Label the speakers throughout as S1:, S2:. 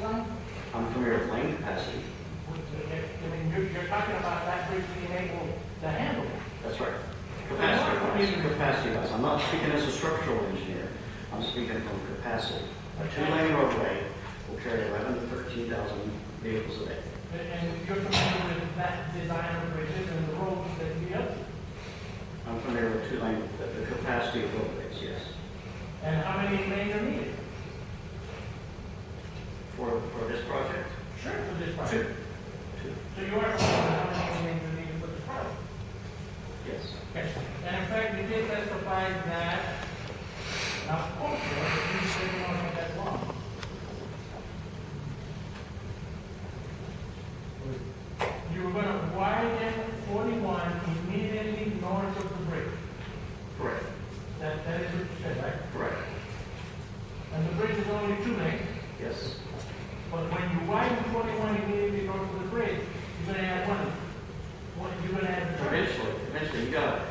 S1: zone?
S2: I'm familiar with lane capacity.
S1: I mean, you're, you're talking about that bridge being able to handle it.
S2: That's right. Capacity, I'm using capacity wise. I'm not speaking as a structural engineer. I'm speaking from capacity. A two-lane roadway will carry 11 to 13,000 vehicles a day.
S1: And- And you're familiar with that design of bridges and the roads that we have?
S2: I'm familiar with two-lane, the the capacity of roadways, yes.
S1: And how many lanes are needed?
S2: For, for this project,
S1: Sure. For this
S2: two,
S1: project?
S2: two,
S1: So you are familiar with how many lanes are needed for this project?
S2: yes.
S1: Yes. And in fact, you did testify that, now, quote, you said you don't have that long. You were gonna widen forty-one immediately north of the bridge.
S2: Correct,
S1: That, that is what you said, right?
S2: correct,
S1: And the bridge is only two lanes,
S2: yes.
S1: but when you widen forty-one immediately north of the bridge, you're gonna add one, one, you're gonna add the bridge.
S2: Eventually, eventually, you gotta,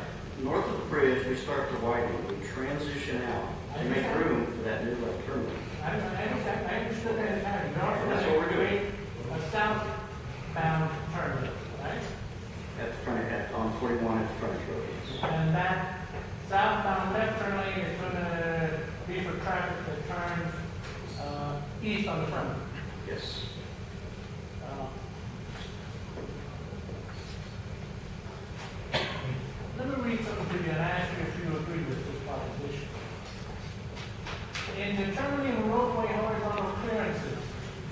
S2: north of the bridge, we start to widen, we transition out to make room for that new left turn lane.
S1: I, I understand, I understood that entirely. You're also
S2: That's
S1: gonna
S2: what we're doing.
S1: create A southbound turn lane, right?
S2: At the front, at, on 41 at the front of road,
S1: And that southbound left turn lane is gonna be for traffic that turns, uh, east on the front.
S2: yes. Yes.
S1: Uh, Let me read something to you and ask you if you agree with this proposition. In determining roadway horizontal clearances,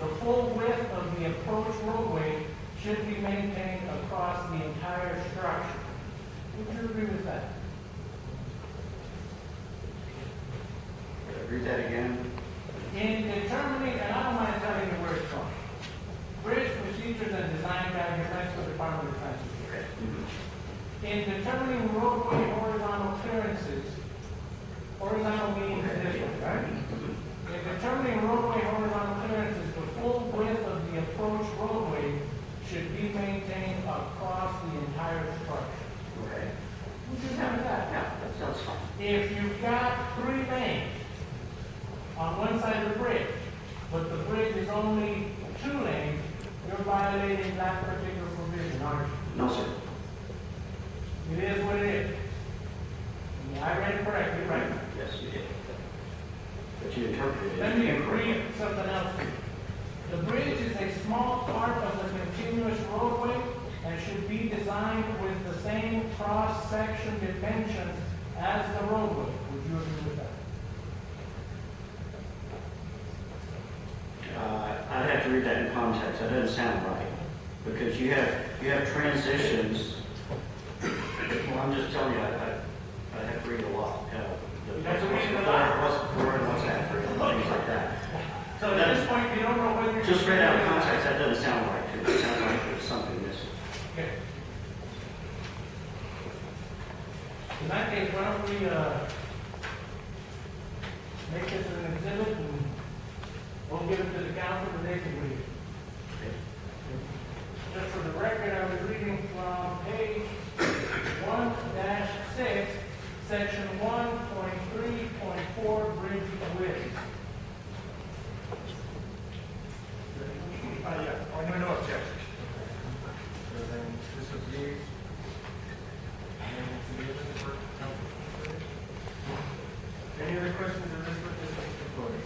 S1: the full width of the approach roadway should be maintained across the entire structure. Would you agree with that?
S2: Read that again.
S1: In determining, and I don't mind telling you where it's from, Bridge Procedures and Design Guide, your Mexico Department of Transportation.
S2: Okay. Mm-hmm.
S1: In determining roadway horizontal clearances, horizontal means this one, right? In determining roadway horizontal clearances, the full width of the approach roadway should be maintained across the entire structure.
S2: Okay.
S1: Would you
S2: Yeah,
S1: have that?
S2: yeah, that sounds fine.
S1: If you've got three lanes on one side of the bridge, but the bridge is only two lanes, you're violating that particular provision, aren't you?
S2: No, sir.
S1: It is what it is. Yeah, I read it correctly, right?
S2: Yes, you did. But you interpreted
S1: Let me
S2: it
S1: read
S2: incorrectly.
S1: something else to you. The bridge is a small part of the continuous roadway and should be designed with the same cross-section dimensions as the roadway. Would you agree with that?
S2: Uh, I'd have to read that in context. That doesn't sound right. Because you have, you have transitions. Well, I'm just telling you, I, I, I have to read a lot. uh, the-
S1: You have to read a
S2: what's
S1: lot.
S2: before, What's before and what's after, and things like that.
S1: So at this point, you don't know whether.
S2: Just read out of context, that doesn't sound right to me. It sounds like there's something missing.
S1: Okay. In that case, why don't we, uh, make this an exhibit and we'll give it to the council and they can read it.
S2: Okay.
S1: Just for the record, I was reading from page one six, section one point three point four, bridge width.
S3: Ah, yeah, on my notes, yes. So then this would be, and then it's the other for council. Any other questions on this one, this one's recorded?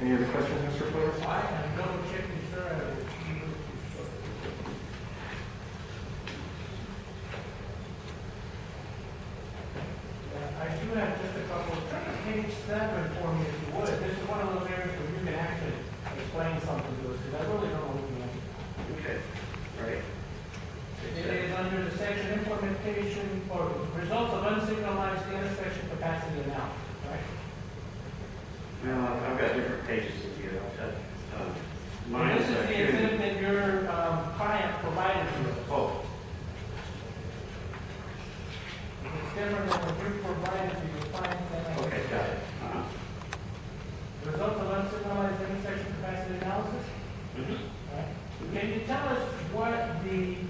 S3: Any other questions, Mr. Flores?
S1: I am double checking, sir, I will keep it short. Uh, I do have just a couple, turn to page seven for me if you would. This is one of those areas where you can actually explain something to us, because I really don't know what you mean.
S2: Okay, all right. uh,
S1: It is under the section implementation or results of unsignalized intersection capacity analysis, right?
S2: Well, I've got different pages of you. Uh, I'll tell
S1: um,
S2: you. uh, Oh, Uh-huh. Mm-hmm.